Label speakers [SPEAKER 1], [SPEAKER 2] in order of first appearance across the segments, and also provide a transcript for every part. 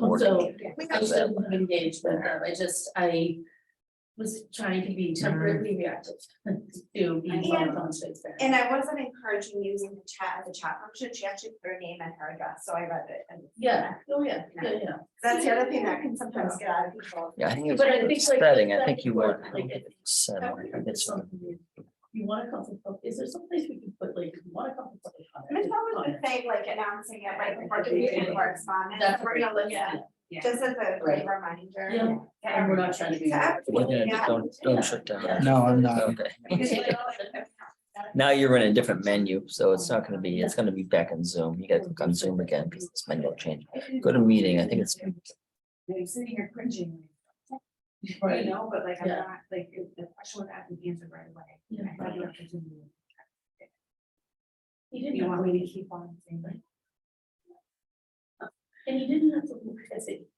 [SPEAKER 1] So
[SPEAKER 2] We
[SPEAKER 1] I
[SPEAKER 2] got
[SPEAKER 1] still
[SPEAKER 2] some.
[SPEAKER 1] have engaged with them. I just, I was trying to be temporarily reactive to be more
[SPEAKER 2] And-
[SPEAKER 1] transparent.
[SPEAKER 2] And I wasn't encouraging using the chat as a chat function. She actually put her name and her address, so I read it. And
[SPEAKER 1] Yeah, oh, yeah, yeah, yeah.
[SPEAKER 2] that's the other thing that can sometimes get out of control.
[SPEAKER 3] Yeah, I think
[SPEAKER 1] But I think
[SPEAKER 3] it's
[SPEAKER 1] like-
[SPEAKER 3] upsetting. I think you
[SPEAKER 1] like,
[SPEAKER 3] were.
[SPEAKER 1] it-
[SPEAKER 3] It's,
[SPEAKER 1] You wanna call it, is there someplace we can put like, you wanna call it?
[SPEAKER 2] Michelle was the same, like announcing it right before the meeting correspondence.
[SPEAKER 1] That's
[SPEAKER 2] We're gonna look
[SPEAKER 1] yeah.
[SPEAKER 2] at, just as a
[SPEAKER 1] Right.
[SPEAKER 2] reminder.
[SPEAKER 1] Yeah.
[SPEAKER 2] to
[SPEAKER 1] And we're not trying to be.
[SPEAKER 2] everyone.
[SPEAKER 3] we're gonna,
[SPEAKER 2] Yeah.
[SPEAKER 3] don't, don't shut down.
[SPEAKER 4] No, I'm not.
[SPEAKER 3] Okay.
[SPEAKER 1] Okay.
[SPEAKER 3] Now you're in a different menu, so it's not gonna be, it's gonna be back in Zoom. You gotta click on Zoom again because this menu will change. Go to meeting. I think it's,
[SPEAKER 5] I'm sitting here cringing. You
[SPEAKER 1] Right.
[SPEAKER 5] know, but like, I'm
[SPEAKER 1] Yeah.
[SPEAKER 5] not, like, if the question was asked and answered right away.
[SPEAKER 1] Yeah.
[SPEAKER 5] I had the opportunity.
[SPEAKER 1] He
[SPEAKER 5] You
[SPEAKER 1] didn't,
[SPEAKER 5] want
[SPEAKER 1] have-
[SPEAKER 5] me to keep on saying like,
[SPEAKER 1] and he didn't have to look at it.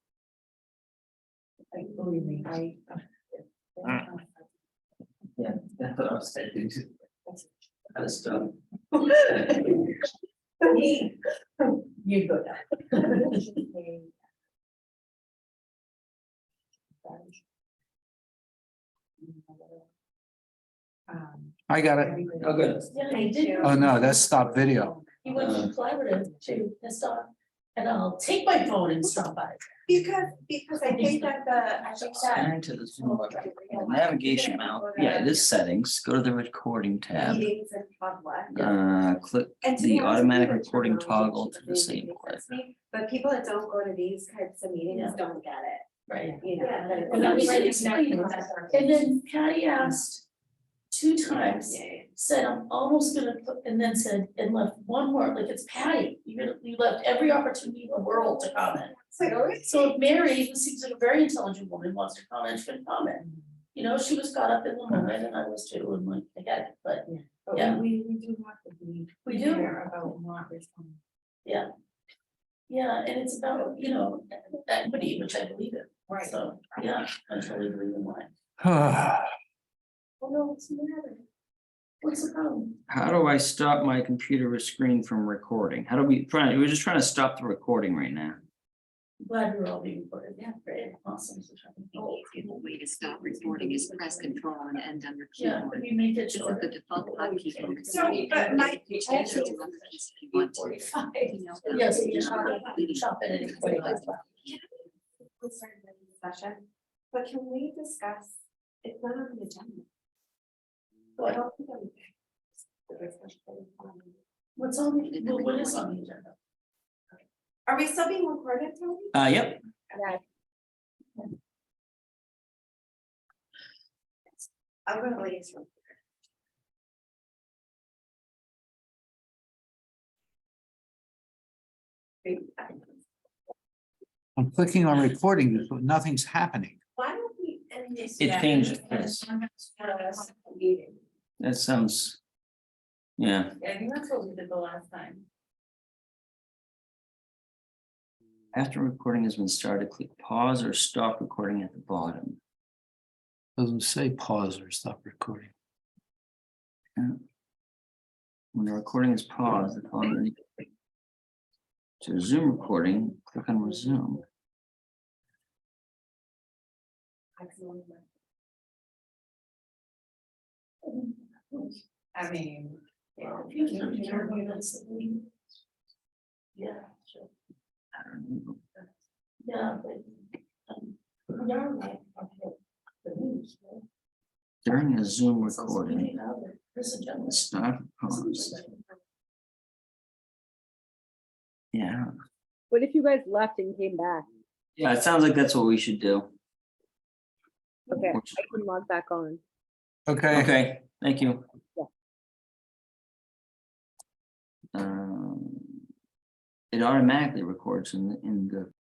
[SPEAKER 5] like, believe me, I.
[SPEAKER 6] That's what I was saying. I was done.
[SPEAKER 5] You go down.
[SPEAKER 2] uh,
[SPEAKER 5] Um,
[SPEAKER 4] I got it.
[SPEAKER 5] everybody-
[SPEAKER 6] Oh, good.
[SPEAKER 1] Yeah, he
[SPEAKER 5] Thank
[SPEAKER 1] didn't.
[SPEAKER 5] you.
[SPEAKER 4] Oh, no, that's stop video.
[SPEAKER 1] He went to collaborative to piss off, and I'll take my phone and stop by.
[SPEAKER 2] Because, because I think that the, I think that.
[SPEAKER 3] Enter the Zoom button. navigation mount, yeah, this settings, go to the recording tab,
[SPEAKER 2] Meetings in public.
[SPEAKER 3] uh, click
[SPEAKER 2] And to
[SPEAKER 3] The
[SPEAKER 2] be honest,
[SPEAKER 3] automatic
[SPEAKER 2] we were
[SPEAKER 3] recording
[SPEAKER 2] trying to
[SPEAKER 3] toggle to the
[SPEAKER 2] change
[SPEAKER 3] same
[SPEAKER 2] it,
[SPEAKER 3] clip.
[SPEAKER 2] But people that don't go to these types of meetings
[SPEAKER 1] Yeah.
[SPEAKER 2] don't get it,
[SPEAKER 1] Right.
[SPEAKER 2] you know.
[SPEAKER 5] Yeah.
[SPEAKER 2] that it's
[SPEAKER 1] And
[SPEAKER 2] not
[SPEAKER 1] we should
[SPEAKER 2] right
[SPEAKER 1] explain
[SPEAKER 2] next
[SPEAKER 1] that.
[SPEAKER 2] to us.
[SPEAKER 1] And then Patty asked two times,
[SPEAKER 2] Yeah, yeah.
[SPEAKER 1] said, I'm almost gonna, put and then said, and left one more, like, it's Patty. You're, gonna- you left every opportunity in the world to comment.
[SPEAKER 2] So it always
[SPEAKER 1] So if Mary, who seems like a very intelligent woman, wants to comment, she can comment. You know, she was caught up in the moment, and I was too, and like, I get it, but
[SPEAKER 5] But we-
[SPEAKER 1] Yeah.
[SPEAKER 5] we, we do have to be.
[SPEAKER 1] we do.
[SPEAKER 5] clear About not responding.
[SPEAKER 1] Yeah, and it's about, you know, equity, which I believe in,
[SPEAKER 5] Right.
[SPEAKER 1] so, yeah, I totally believe in mine. Well, no, it's not. What's the problem?
[SPEAKER 6] How do I stop my computer or screen from recording? How do we, trying, we're just trying to stop the recording right now.
[SPEAKER 1] Glad we're all being recorded, yeah, great, awesome. so try and-
[SPEAKER 7] The easiest way to stop recording is press control and end on your
[SPEAKER 1] Yeah,
[SPEAKER 7] keyboard.
[SPEAKER 1] we make it
[SPEAKER 7] This is
[SPEAKER 1] short.
[SPEAKER 7] the default hotkey for recording.
[SPEAKER 2] So, but my-
[SPEAKER 7] You change it to one that you want to. Email them.
[SPEAKER 1] Yes, you just wanna chop it and put it like that.
[SPEAKER 2] We'll start the session, but can we discuss, it's not on the agenda. So I don't think I'm.
[SPEAKER 1] What's on, the- well, what is on the agenda?
[SPEAKER 2] Are we still being recorded, Tony?
[SPEAKER 6] Uh, yep,
[SPEAKER 2] I'm gonna leave.
[SPEAKER 4] I'm clicking on recording, but nothing's happening.
[SPEAKER 2] Why don't we end this?
[SPEAKER 6] it
[SPEAKER 2] now?
[SPEAKER 6] changes. Yes,
[SPEAKER 2] Yes. Meeting.
[SPEAKER 6] That sounds. Yeah,
[SPEAKER 5] I think that's what we did the last time.
[SPEAKER 6] after recording has been started, click pause or stop recording at the bottom.
[SPEAKER 4] Doesn't say pause or stop recording.
[SPEAKER 6] When the recording is paused, the phone. To Zoom recording, click on resume.
[SPEAKER 5] I mean.
[SPEAKER 1] Yeah, if you can, you know, that's- Yeah, sure.
[SPEAKER 6] I don't know.
[SPEAKER 1] Yeah, but. um, we are like, okay, the news, right?
[SPEAKER 6] During a Zoom
[SPEAKER 1] It's also
[SPEAKER 6] recording,
[SPEAKER 1] pretty loud. There's a gentleman.
[SPEAKER 6] stop pause. Yeah,
[SPEAKER 8] What if you guys left and came back?
[SPEAKER 6] yeah, it sounds like that's what we should do.
[SPEAKER 8] Okay,
[SPEAKER 6] Which-
[SPEAKER 8] I can log back on.
[SPEAKER 4] Okay.
[SPEAKER 6] Okay, thank you.
[SPEAKER 8] Yeah.
[SPEAKER 6] Um, It automatically records in, the in the